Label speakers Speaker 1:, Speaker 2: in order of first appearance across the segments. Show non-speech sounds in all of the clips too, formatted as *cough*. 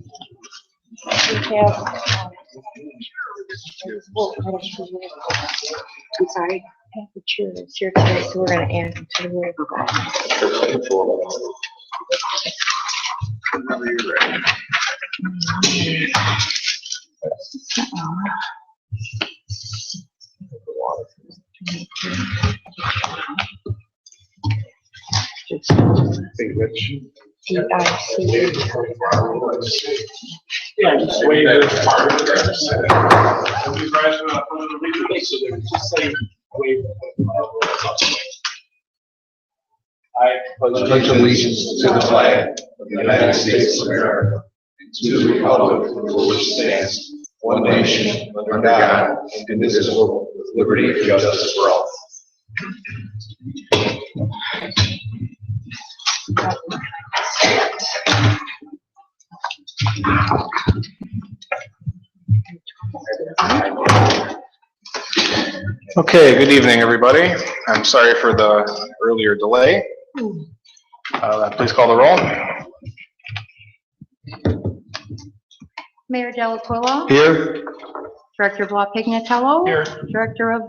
Speaker 1: We have, um, well, I don't know where- I'm sorry, I have the chair is here today, so we're gonna add him to the word of God. D I C.
Speaker 2: Yeah, just wave it. I
Speaker 3: pledge allegiance to the flag of the United States of America, and to the republic for which it stands one nation, under God, indivisible, with liberty and justice for all.
Speaker 4: Okay, good evening, everybody. I'm sorry for the earlier delay. Uh, Please call the roll.
Speaker 5: Mayor Delacuilla.
Speaker 4: Here.
Speaker 5: Director Blah Pignatello.
Speaker 2: Here.
Speaker 5: Director of,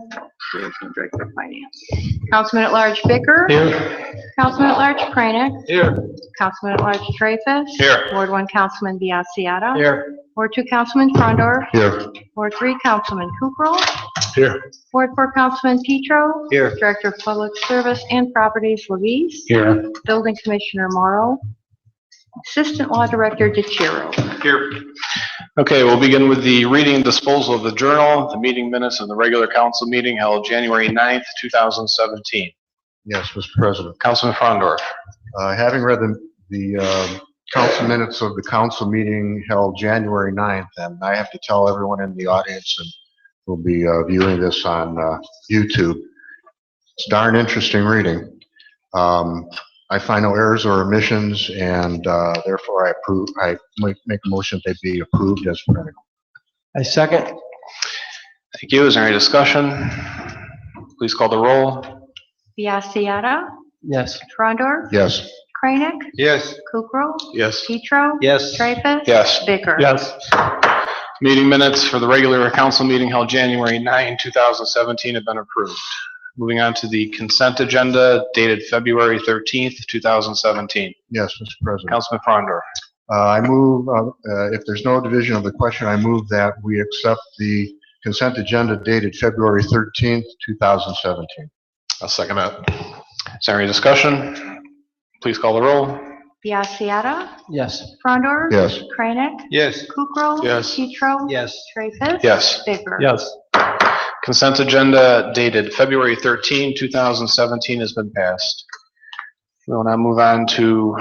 Speaker 5: Director of Finance. Councilman at Large Bicker.
Speaker 4: Here.
Speaker 5: Councilman at Large Kranek.
Speaker 4: Here.
Speaker 5: Councilman at Large Traffus.
Speaker 4: Here.
Speaker 5: Ward 1 Councilman Biassiata.
Speaker 4: Here.
Speaker 5: Ward 2 Councilman Frondor.
Speaker 4: Here.
Speaker 5: Ward 3 Councilman Kukrow.
Speaker 4: Here.
Speaker 5: Ward 4 Councilman Petro.
Speaker 4: Here.
Speaker 5: Director of Public Service and Properties Levis.
Speaker 4: Here.
Speaker 5: Building Commissioner Morrow. Assistant Law Director DeChiro.
Speaker 4: Here. Okay, we'll begin with the reading and disposal of the journal, the meeting minutes, and the regular council meeting held January 9th, 2017.
Speaker 6: Yes, Mr. President.
Speaker 4: Councilman Frondor.
Speaker 6: Uh, Having read the, the um, council minutes of the council meeting held January 9th, and I have to tell everyone in the audience and will be uh, viewing this on uh, YouTube, it's darn interesting reading. Um, I find no errors or omissions, and uh, therefore I approve, I make make a motion that they be approved as printed.
Speaker 4: I second. Thank you. Is there any discussion? Please call the roll.
Speaker 5: Biassiata.
Speaker 2: Yes.
Speaker 5: Frondor.
Speaker 6: Yes.
Speaker 5: Kranek.
Speaker 4: Yes.
Speaker 5: Kukrow.
Speaker 4: Yes.
Speaker 5: Petro.
Speaker 2: Yes.
Speaker 5: Treffus.
Speaker 4: Yes.
Speaker 5: Bicker.
Speaker 2: Yes.
Speaker 4: Meeting minutes for the regular council meeting held January 9, 2017 have been approved. Moving on to the consent agenda dated February 13th, 2017.
Speaker 6: Yes, Mr. President.
Speaker 4: Councilman Frondor.
Speaker 6: Uh, I move, uh, uh, if there's no division of the question, I move that we accept the consent agenda dated February 13th, 2017.
Speaker 4: I'll second that. Is there any discussion? Please call the roll.
Speaker 5: Biassiata.
Speaker 2: Yes.
Speaker 5: Frondor.
Speaker 6: Yes.
Speaker 5: Kranek.
Speaker 4: Yes.
Speaker 5: Kukrow.
Speaker 4: Yes.
Speaker 5: Petro.
Speaker 2: Yes.
Speaker 5: Treffus.
Speaker 4: Yes.
Speaker 5: Bicker.
Speaker 2: Yes.
Speaker 4: Consent agenda dated February 13, 2017 has been passed. We will now move on to,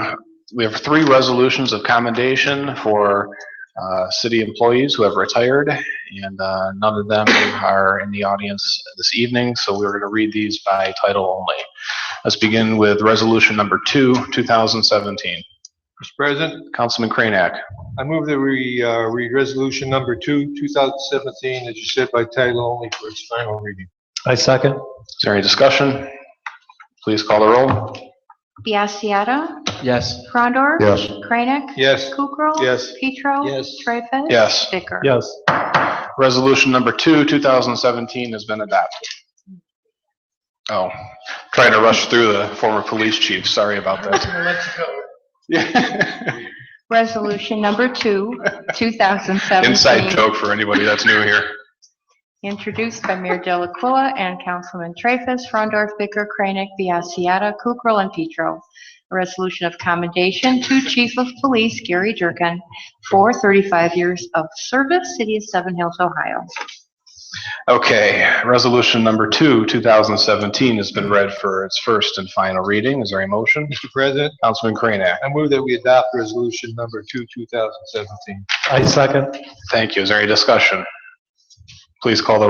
Speaker 4: we have three resolutions of commendation for uh, city employees who have retired, and uh, none of them are in the audience this evening, so we're going to read these by title only. Let's begin with Resolution Number 2, 2017.
Speaker 7: Mr. President,
Speaker 4: Councilman Kranek.
Speaker 7: I move that we uh, read Resolution Number 2, 2017, as you said, by title only for its final reading.
Speaker 2: I second.
Speaker 4: Is there any discussion? Please call the roll.
Speaker 5: Biassiata.
Speaker 2: Yes.
Speaker 5: Frondor.
Speaker 6: Yes.
Speaker 5: Kranek.
Speaker 7: Yes,
Speaker 5: Kukrow.
Speaker 7: yes,
Speaker 5: Petro.
Speaker 2: Yes.
Speaker 5: Treffus.
Speaker 4: Yes.
Speaker 5: Bicker.
Speaker 2: Yes.
Speaker 4: Resolution number two, 2017, has been adopted. Oh, trying to rush through the former police chief, sorry about that. Yeah. *laughs*
Speaker 5: Resolution number
Speaker 2: *laughs*
Speaker 5: two, 2017.
Speaker 4: Inside joke for anybody that's new here.
Speaker 5: Introduced by Mayor Delacuilla and Councilman Traffus, Frondor, Bicker, Kranek, Biassiata, Kukrow, and Petro. A resolution of commendation to Chief of Police Gary Jerkin for 35 years of service, City of Seven Hills, Ohio.
Speaker 4: Okay, resolution number two, 2017, has been read for its first and final reading. Is there a motion? *laughs*
Speaker 7: Mr. President,
Speaker 4: Councilman Kranek,
Speaker 7: I move that we adopt Resolution Number 2, 2017.
Speaker 2: I second.
Speaker 4: thank you. Is there any discussion? Please call the